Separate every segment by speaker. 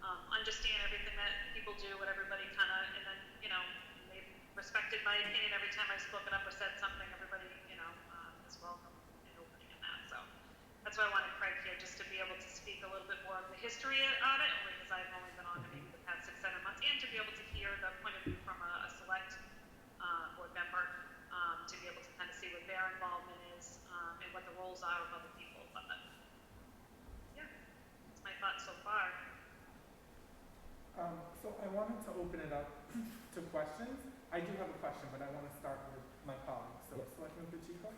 Speaker 1: um, spoke it up or said something, everybody, you know, um, is welcome in opening in that, so. That's why I wanted Craig here, just to be able to speak a little bit more of the history on it, only because I've only been on it maybe the past six, seven months, and to be able to hear the point of view from a, a select, uh, board member, um, to be able to kind of see what their involvement is, um, and what the roles are of other people, but, yeah, that's my thoughts so far.
Speaker 2: Um, so I wanted to open it up to questions. I do have a question, but I want to start with my colleague. So,
Speaker 3: Yep.
Speaker 2: Selectman Pacheco,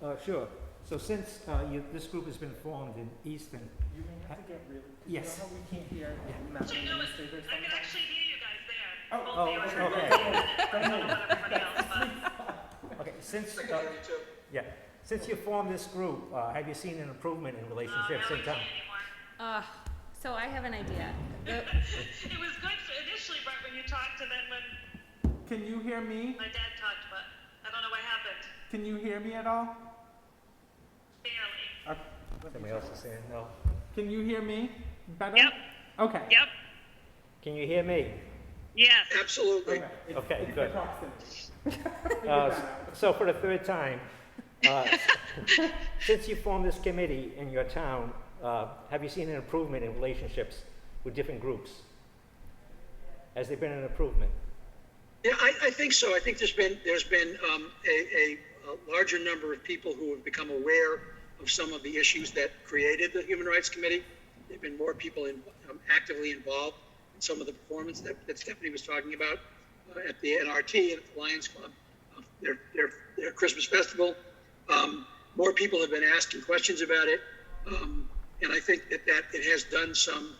Speaker 3: Uh, sure. So since uh, you, this group has been formed in Easton,
Speaker 2: you may have to get real. 'cause
Speaker 3: Uh,
Speaker 2: You
Speaker 3: Yes.
Speaker 2: know how we can't hear
Speaker 3: Yeah.
Speaker 2: Madam
Speaker 1: Actually, no, it's-
Speaker 2: Administrator
Speaker 1: I can
Speaker 2: sometimes?
Speaker 1: actually hear you guys there.
Speaker 2: Oh,
Speaker 1: Both
Speaker 3: oh,
Speaker 1: you and
Speaker 3: okay,
Speaker 1: I.
Speaker 3: okay.
Speaker 1: I don't know about everybody else, but.
Speaker 3: okay, since, uh, yeah, since you formed this group, uh, have you seen an improvement in relationships in town?
Speaker 4: Uh, so I have an idea. The-
Speaker 1: It was good for initially, Brett, when you talked, and then when
Speaker 2: Can you hear me?
Speaker 1: my dad talked, but I don't know what happened.
Speaker 2: Can you hear me at all?
Speaker 1: Barely.
Speaker 2: Uh,
Speaker 3: Somebody else is saying no.
Speaker 2: Can you hear me better?
Speaker 1: Yep.
Speaker 2: Okay.
Speaker 1: Yep.
Speaker 3: Can you hear me?
Speaker 1: Yes.
Speaker 5: Absolutely.
Speaker 2: Okay. It's-
Speaker 3: Okay,
Speaker 2: it's the
Speaker 3: good.
Speaker 2: proximity. Figure
Speaker 3: Uh,
Speaker 2: that out.
Speaker 3: so for the third time, uh, since you formed this committee in your town, uh, have you seen an improvement in relationships with different groups? Has there been an improvement?
Speaker 5: Yeah, I, I think so. I think there's been, there's been um, a, a, a larger number of people who have become aware of some of the issues that created the Human Rights Committee. There've been more people in, um, actively involved in some of the performance that, that Stephanie was talking about uh, at the NRT and at the Lions Club, uh, their, their, their Christmas festival. Um, more people have been asking questions about it. Um, and I think that, that it has done some,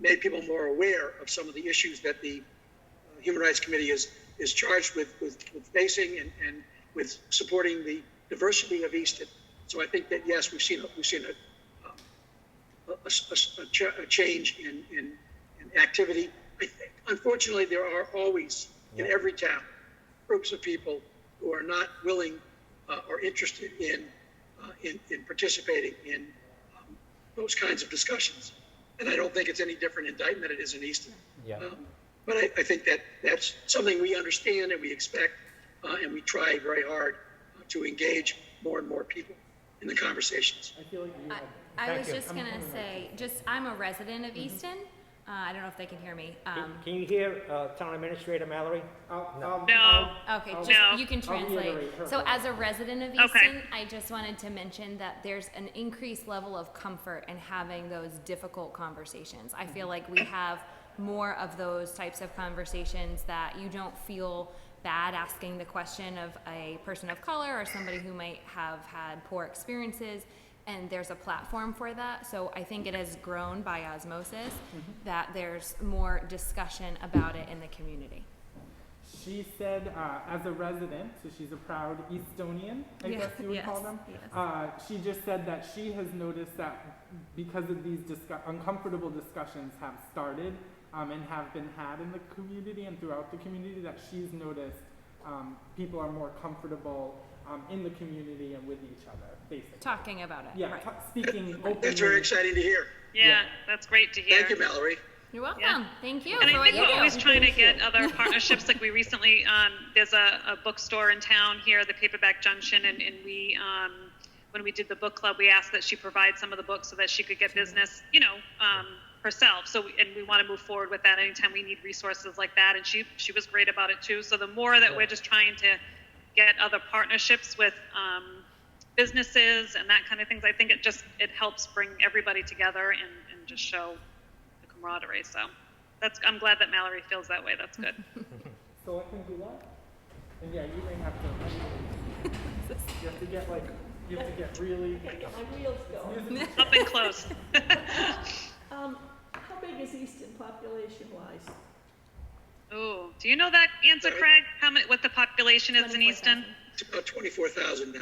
Speaker 5: made people more aware of some of the issues that the uh, Human Rights Committee is, is charged with, with, with facing and, and with supporting the diversity of Easton. So I think that, yes, we've seen, a- we've seen a, um, a, a s- a ch- a change in, in, in activity. I think, unfortunately, there are always, in
Speaker 3: Yeah.
Speaker 5: every town, groups of people who are not willing uh, or interested in, uh, in, in participating in um, those kinds of discussions. And I don't think it's any different in Dayton than it is in Easton.
Speaker 3: Yeah.
Speaker 5: Um, But I, I think that that's something we understand and we expect, uh, and we try very hard uh, to engage more and more people in the conversations.
Speaker 2: I feel like you
Speaker 4: I-
Speaker 2: had.
Speaker 4: I
Speaker 3: Thank
Speaker 4: was
Speaker 3: you.
Speaker 4: just gonna say, just, I'm a resident of
Speaker 3: Mm-hmm.
Speaker 4: Easton. Uh, I don't know if they can hear me.
Speaker 3: Can,
Speaker 4: Um,
Speaker 3: can you hear uh, Town Administrator Mallory?
Speaker 2: I'll-
Speaker 3: No.
Speaker 2: I'll-
Speaker 1: No.
Speaker 2: I'll-
Speaker 4: Okay,
Speaker 2: I'll-
Speaker 1: No.
Speaker 4: just, you can
Speaker 2: I'll
Speaker 4: translate.
Speaker 2: reiterate her
Speaker 4: So
Speaker 2: point.
Speaker 4: as a resident of
Speaker 1: Okay.
Speaker 4: Easton, I just wanted to mention that there's an increased level of comfort in having those difficult conversations. I feel like we have more of those types of conversations that you don't feel bad asking the question of a person of color or somebody who might have had poor experiences. And there's a platform for that. So I think it has grown by osmosis
Speaker 2: Mm-hmm.
Speaker 4: that there's more discussion about it in the community.
Speaker 2: She said, uh, as a resident, so she's a proud Estonian, I
Speaker 4: Yeah,
Speaker 2: guess you would call
Speaker 4: yes,
Speaker 2: them.
Speaker 4: yes.
Speaker 2: Uh, she just said that she has noticed that because of these discu- uncomfortable discussions have started um, and have been had in the community and throughout the community, that she's noticed um, people are more comfortable um, in the community and with each other, basically.
Speaker 4: Talking about it,
Speaker 2: Yeah,
Speaker 4: right.
Speaker 2: ta- speaking openly.
Speaker 5: That's very exciting to hear.
Speaker 2: Yeah.
Speaker 1: Yeah, that's great to hear.
Speaker 5: Thank you, Mallory.
Speaker 4: You're welcome.
Speaker 1: Yeah.
Speaker 4: Thank you
Speaker 1: And
Speaker 4: for
Speaker 1: I
Speaker 4: what
Speaker 1: think
Speaker 4: you
Speaker 1: we're
Speaker 4: do.
Speaker 1: always trying to get other partnerships. Like we recently, um, there's a, a bookstore in town here, the Paperback Junction, and, and we, um, when we did the book club, we asked that she provide some of the books so that she could get business, you know, um, herself. So, we- and we want to move forward with that anytime we need resources like that. And she, she was great about it too. So the more that we're just trying to get other partnerships with, um, businesses and that kind of things, I think it just, it helps bring everybody together and, and just show the camaraderie. So that's I'm glad that Mallory feels that way. That's good.
Speaker 2: So I can do that? And yeah, you may have to. you have to get like, you have to get really.
Speaker 6: My wheels go.
Speaker 1: Up and close.
Speaker 6: Um, how big is Easton population wise?
Speaker 1: Ooh, do you know that answer, Craig? How many? What the population is in Easton?
Speaker 5: It's about 24,000 now.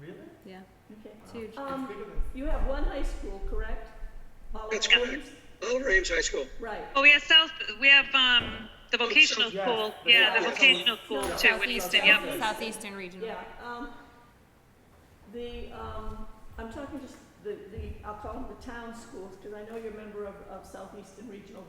Speaker 2: Really?
Speaker 4: Yeah.
Speaker 6: Okay.
Speaker 4: It's huge.
Speaker 6: Um, you have one high school, correct? Olive
Speaker 5: That's
Speaker 6: Arms?
Speaker 5: correct. Oliver Ames High School.
Speaker 6: Right.
Speaker 1: Oh, we have South. We have um the vocational
Speaker 2: Oh, Yes,
Speaker 1: school.
Speaker 2: the
Speaker 1: Yeah, the
Speaker 5: vocational-
Speaker 1: vocational school too in Easton. Yep.
Speaker 2: Southeast.
Speaker 4: Southeastern region.
Speaker 6: Yeah, um, the, um, I'm talking just the, the, I'll call them the town schools, because I know you're a member of, of Southeastern Regional